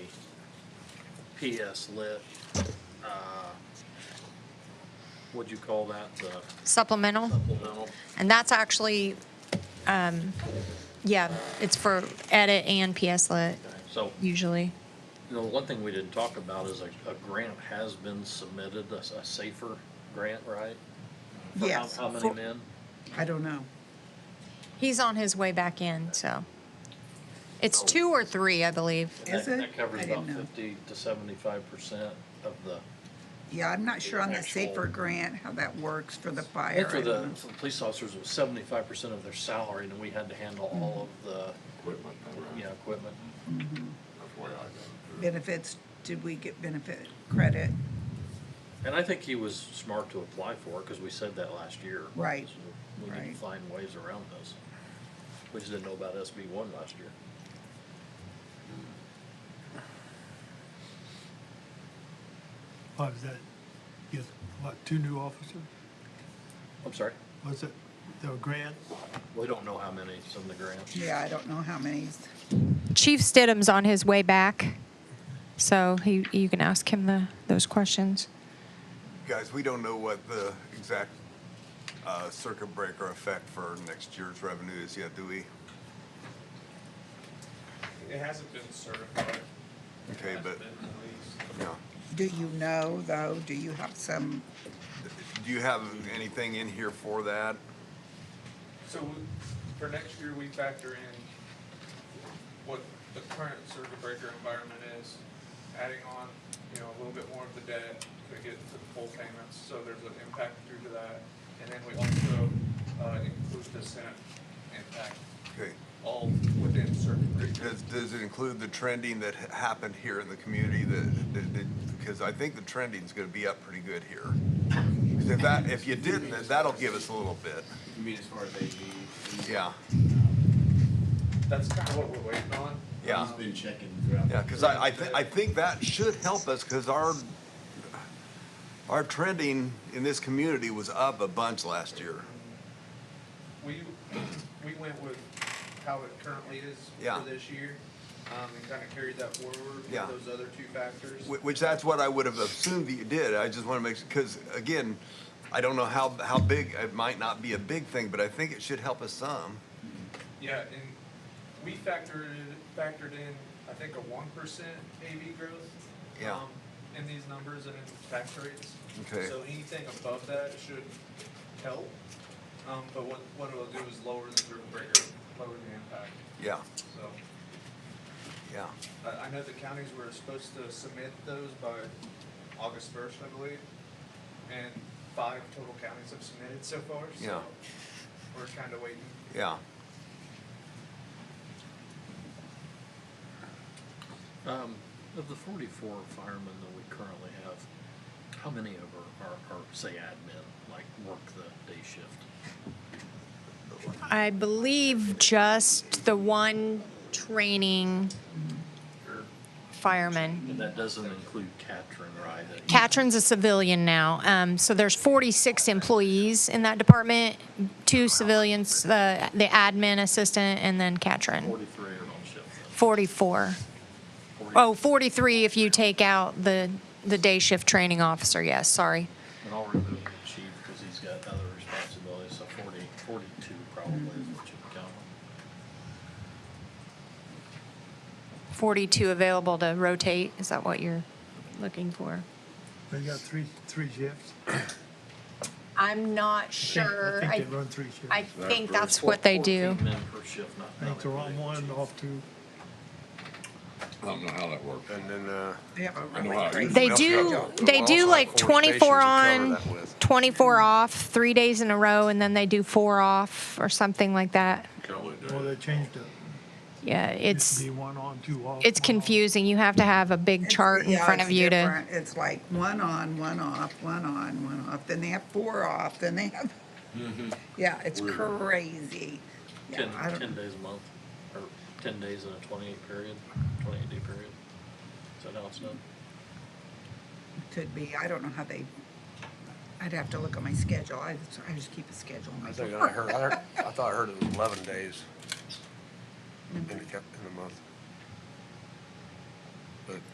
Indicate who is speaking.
Speaker 1: PS lit, uh, what'd you call that, the
Speaker 2: Supplemental,
Speaker 1: supplemental?
Speaker 2: and that's actually, um, yeah, it's for edit and PS Lit
Speaker 1: So,
Speaker 2: usually.
Speaker 1: you know, one thing we didn't talk about is a, a grant has been submitted, a, s- a safer grant, right? For how-
Speaker 3: Yes.
Speaker 1: How many
Speaker 3: for-
Speaker 1: men?
Speaker 3: I don't know.
Speaker 2: He's on his way back in, so. It's two or three, I believe.
Speaker 1: And
Speaker 3: Is
Speaker 1: that-
Speaker 3: it?
Speaker 1: That covers
Speaker 3: I
Speaker 1: about
Speaker 3: didn't know.
Speaker 1: fifty to seventy-five percent of the,
Speaker 3: Yeah, I'm not sure on the
Speaker 1: Actual-
Speaker 3: safer grant, how that works for the
Speaker 1: I
Speaker 3: fire.
Speaker 1: think for
Speaker 3: I
Speaker 1: the,
Speaker 3: don't know.
Speaker 1: for the police officers, it was seventy-five percent of their salary, and we had to handle all of the,
Speaker 4: equipment
Speaker 1: you
Speaker 4: around.
Speaker 1: know, equipment.
Speaker 4: That's why I got it.
Speaker 3: Benefits, did we get benefit credit?
Speaker 1: And I think he was smart to apply for it, because we said that last year.
Speaker 3: Right,
Speaker 1: So We need
Speaker 3: right.
Speaker 1: to find ways around this. We just didn't know about SB one last year.
Speaker 5: What was Oh, that? Yes, what, two new officers?
Speaker 1: I'm sorry,
Speaker 5: Was it the grant?
Speaker 1: we don't know how many, some of the grants.
Speaker 3: Yeah, I don't know how many.
Speaker 2: Chief Stidham's on his way back, so he, you can ask him the, those questions.
Speaker 6: Guys, we don't know what the exact uh, circuit breaker effect for next year's revenue is yet, do we?
Speaker 7: It hasn't been certified. It
Speaker 6: Okay,
Speaker 7: hasn't
Speaker 6: but,
Speaker 7: been released.
Speaker 6: no.
Speaker 3: Do you know, though? Do you have some,
Speaker 6: Do you have anything in here for that?
Speaker 7: So we- for next year, we factor in what the current circuit breaker environment is, adding on, you know, a little bit more of the debt to get to the full payments, so there's an impact due to that. And then we also uh, include the Senate impact,
Speaker 6: Okay.
Speaker 7: all within circuit breaker.
Speaker 6: Does, does it include the trending that ha- happened here in the community that, that, that- because I think the trending's gonna be up pretty good here. 'Cause If that, if you didn't, then that'll give us a little bit,
Speaker 8: You mean as far as AV?
Speaker 6: yeah.
Speaker 7: That's kind of what we're waiting on.
Speaker 6: Yeah.
Speaker 7: Um,
Speaker 8: He's been checking throughout.
Speaker 6: Yeah, because I, I, thi- I think that should help us, because our, our trending in this community was up a bunch last year.
Speaker 7: We, we went with how it currently is
Speaker 6: Yeah.
Speaker 7: for this year, um, and kind of carried that forward with
Speaker 6: Yeah.
Speaker 7: those other two factors.
Speaker 6: Wh- Which that's what I would have assumed that you did. I just want to make, because again, I don't know how, how big, it might not be a big thing, but I think it should help us some.
Speaker 7: Yeah, and we factored, factored in, I think, a one percent AV growth.
Speaker 6: Yeah.
Speaker 7: um, In these numbers and in tax rates.
Speaker 6: Okay.
Speaker 7: So anything above that should help, um, but what, what it'll do is lower the circuit breaker, lower the impact,
Speaker 6: Yeah,
Speaker 7: so.
Speaker 6: yeah.
Speaker 7: I, I know the counties were supposed to submit those by August first, I believe, and five total counties have submitted so far, so
Speaker 6: Yeah.
Speaker 7: we're kind of waiting.
Speaker 6: Yeah,
Speaker 1: Um, of the forty-four firemen that we currently have, how many of are, are, are, say admin, like work the day shift?
Speaker 2: I believe just the one training fireman.
Speaker 1: And that doesn't include Katrin, right? that-
Speaker 2: Katrin's a civilian now, um, so there's 46 employees in that department, two civilians, the, the admin assistant, and then Katrin,
Speaker 1: Forty-three are on shift. then.
Speaker 2: 44.
Speaker 1: Forty-
Speaker 2: Oh, 43 if you take out the, the day shift training officer, yes, sorry.
Speaker 1: And I'll remove the chief because he's got other responsibilities, so forty, forty-two probably is what you would count.
Speaker 2: 42 available to rotate, is that what you're looking for?
Speaker 5: They got three, three shifts? I
Speaker 2: I'm not
Speaker 5: think-
Speaker 2: sure.
Speaker 5: I
Speaker 2: I,
Speaker 5: think they run three shifts.
Speaker 2: I
Speaker 5: I
Speaker 2: think that's what they do.
Speaker 1: Fourteen men per shift, not.
Speaker 5: think they're on one, off two.
Speaker 4: I don't know how that works.
Speaker 6: and then, uh.
Speaker 3: they have a
Speaker 4: know
Speaker 3: really
Speaker 4: how you
Speaker 3: crazy.
Speaker 2: They
Speaker 6: Well,
Speaker 2: do,
Speaker 6: yeah.
Speaker 2: they
Speaker 6: Well,
Speaker 2: do
Speaker 6: I'll
Speaker 2: like
Speaker 6: have
Speaker 2: 24
Speaker 6: four stations to cover
Speaker 2: on,
Speaker 6: that with.
Speaker 2: 24 off, three days in a row, and then they do four off or something like that.
Speaker 4: Can only do
Speaker 5: Well,
Speaker 4: it.
Speaker 5: they changed it.
Speaker 2: Yeah,
Speaker 5: Used to
Speaker 2: it's,
Speaker 5: Be one on, two off.
Speaker 2: it's
Speaker 5: one on.
Speaker 2: confusing. You have to have a big chart in
Speaker 3: Yeah,
Speaker 2: front
Speaker 3: it's
Speaker 2: of you to,
Speaker 3: different. It's like one on, one off, one on, one off, then they have four off, then they have, yeah, it's
Speaker 4: Weird.
Speaker 3: crazy. Yeah,
Speaker 1: Mm-hmm. Ten,
Speaker 3: I don't-
Speaker 1: ten days a month, or ten days in a twenty-eight period, twenty-eight day period. So now it's done.
Speaker 3: Could be, I don't know how they, I'd have to look at my schedule, I, just- I just keep a schedule.
Speaker 9: I think I heard, I heard, I thought I heard it was eleven days in the, cap- in the month.